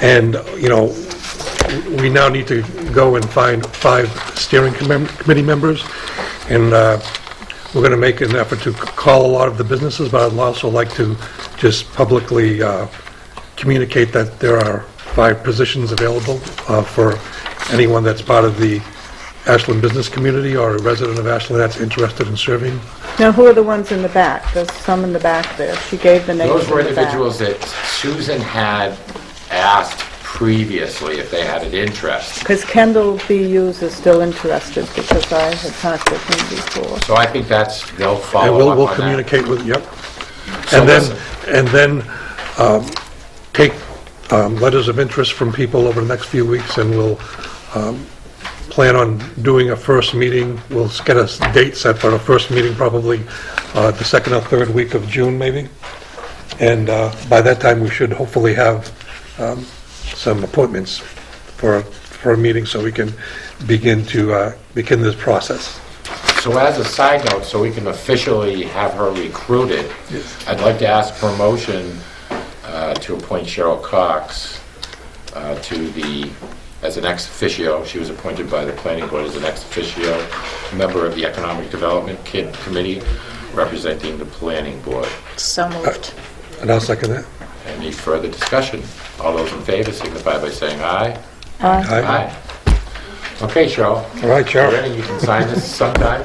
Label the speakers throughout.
Speaker 1: And, you know, we now need to go and find five steering commem- committee members, and uh, we're going to make an effort to c- call a lot of the businesses, but I'd also like to just publicly uh, communicate that there are five positions available uh, for anyone that's part of the Ashland business community or a resident of Ashland that's interested in serving.
Speaker 2: Now, who are the ones in the back? There's some in the back there. She gave the names
Speaker 3: Those were
Speaker 2: in the back.
Speaker 3: individuals that Susan had asked previously if they had an interest.
Speaker 2: Because Kendall B. Hughes is still interested because I had talked with him before.
Speaker 3: So I think that's, they'll
Speaker 1: And
Speaker 3: follow
Speaker 1: we'll,
Speaker 3: up
Speaker 1: we'll
Speaker 3: on that.
Speaker 1: communicate with, yep.
Speaker 3: So
Speaker 1: And then,
Speaker 3: listen.
Speaker 1: and then um, take um, letters of interest from people over the next few weeks, and we'll um, plan on doing a first meeting. We'll s- get a s- date set for a first meeting, probably uh, the second or third week of June, maybe. And uh, by that time, we should hopefully have um, some appointments for, for a meeting, so we can begin to, uh, begin this process.
Speaker 3: So as a side note, so we can officially have her recruited, I'd like to ask for a motion uh, to appoint Cheryl Cox uh, to the, as an ex officio, she was appointed by the planning board as an ex officio member of the Economic Development Kid- Committee representing the planning board.
Speaker 4: So moved.
Speaker 2: Uh,
Speaker 1: And I'll second that.
Speaker 3: Any further discussion? All those in favor signify by saying aye.
Speaker 1: Aye.
Speaker 3: Okay, Cheryl,
Speaker 1: All right, Cheryl.
Speaker 3: Brandon, you can sign this sometime.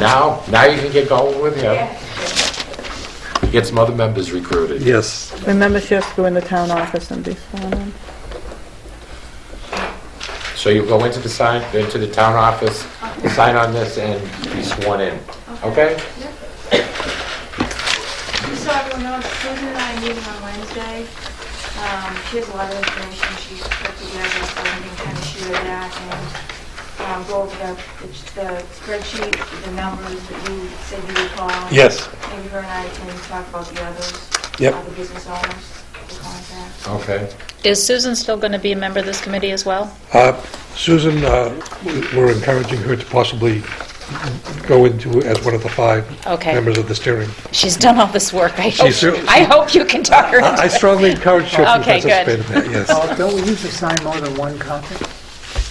Speaker 3: Now, now you can get going with him. Get some other members recruited.
Speaker 1: Yes.
Speaker 2: Remember, she has to go in the town office and be sworn in.
Speaker 3: So you go into the sign, into the town office, sign on this and be sworn in, okay?
Speaker 5: Just so everyone knows, Susan and I are meeting on Wednesday. Um, She has a lot of information she's put together, so we can kind of share that and um, go over the the spreadsheet, the numbers that you said you recall.
Speaker 1: Yes.
Speaker 5: Maybe her and I can talk about the others.
Speaker 1: Yep.
Speaker 5: uh, The business owners, the contacts.
Speaker 3: Okay.
Speaker 4: Is Susan still going to be a member of this committee as well?
Speaker 1: Uh, Susan, uh, we're encouraging her to possibly go into as one of the five
Speaker 4: Okay.
Speaker 1: members of the steering.
Speaker 4: She's done all this work. I hope,
Speaker 1: She's-
Speaker 4: I hope you can talk her
Speaker 1: I I
Speaker 4: into it.
Speaker 1: strongly encourage her to
Speaker 4: Okay, good.
Speaker 1: participate in that, yes.
Speaker 6: Oh, Don't we usually sign more than one copy?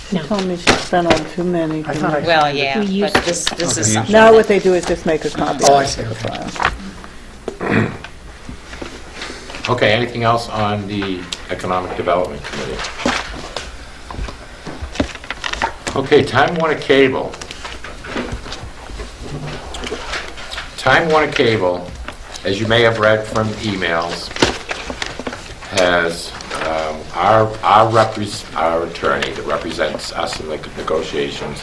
Speaker 2: She told me she's been on too many.
Speaker 6: I thought I...
Speaker 4: Well, yeah, but this, this is something.
Speaker 2: Now what they do is just make a copy.
Speaker 6: Oh,
Speaker 2: of
Speaker 6: I
Speaker 2: it
Speaker 6: see,
Speaker 2: for the
Speaker 6: okay.
Speaker 2: file.
Speaker 3: Okay, anything else on the Economic Development Committee? Okay, Time Warner Cable. Time Warner Cable, as you may have read from emails, has um, our, our repres, our attorney that represents us in the negotiations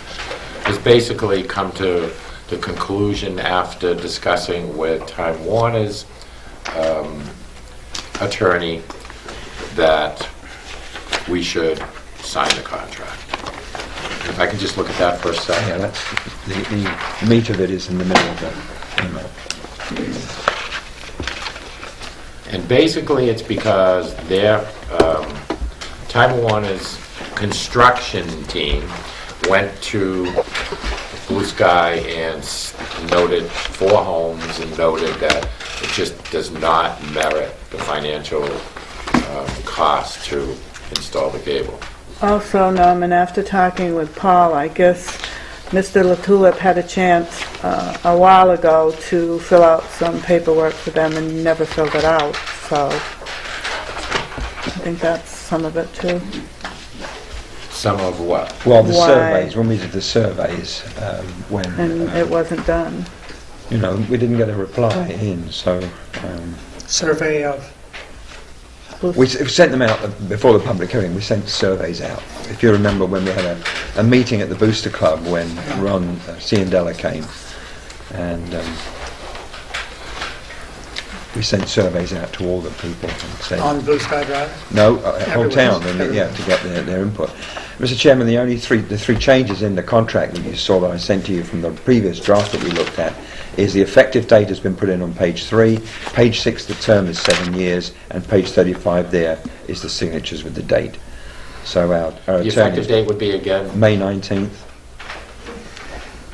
Speaker 3: has basically come to the conclusion after discussing with Time Warner's attorney that we should sign the contract. If I can just look at that for a
Speaker 7: Yeah,
Speaker 3: second.
Speaker 7: that's, the, the meat of it is in the middle of the email.
Speaker 3: And basically, it's because their, um, Time Warner's construction team went to Blue Sky and s- noted four homes and noted that it just does not merit the financial um, cost to install the cable.
Speaker 2: Also, Norman, after talking with Paul, I guess Mr. Latulip had a chance uh, a while ago to fill out some paperwork for them and never filled it out, so I think that's some of it too.
Speaker 3: Some of what?
Speaker 7: Well, the
Speaker 2: Why?
Speaker 7: surveys, when we did the surveys, um, when,
Speaker 2: And
Speaker 7: uh,
Speaker 2: it Oh. wasn't done.
Speaker 7: you know, we didn't get a reply in, so, um,
Speaker 6: Survey of,
Speaker 7: we s- we sent them out uh, before the public hearing, we sent surveys out. If you remember when we had a, a meeting at the Booster Club when Ron uh, Ciandella came, and, um, we sent surveys out to all the people and said...
Speaker 6: on Blue Sky Drive?
Speaker 7: No, uh, whole
Speaker 6: Everyone's-
Speaker 7: town, and, yeah, to get their, their input. Mr. Chairman, the only three, the three changes in the contract that you saw that I sent to you from the previous draft that we looked at is the effective date has been put in on page three, page six, the term is seven years, and page thirty-five there is the signatures with the date. So our, our
Speaker 3: The effective
Speaker 7: attorney,
Speaker 3: date would be again?
Speaker 7: May nineteenth,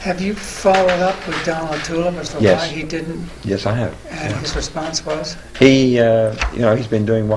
Speaker 6: Have you followed up with Donald Tulip as to why
Speaker 7: Yes.
Speaker 6: he didn't,
Speaker 7: yes, I have.
Speaker 6: and his response was?
Speaker 7: He, uh, you know, he's been doing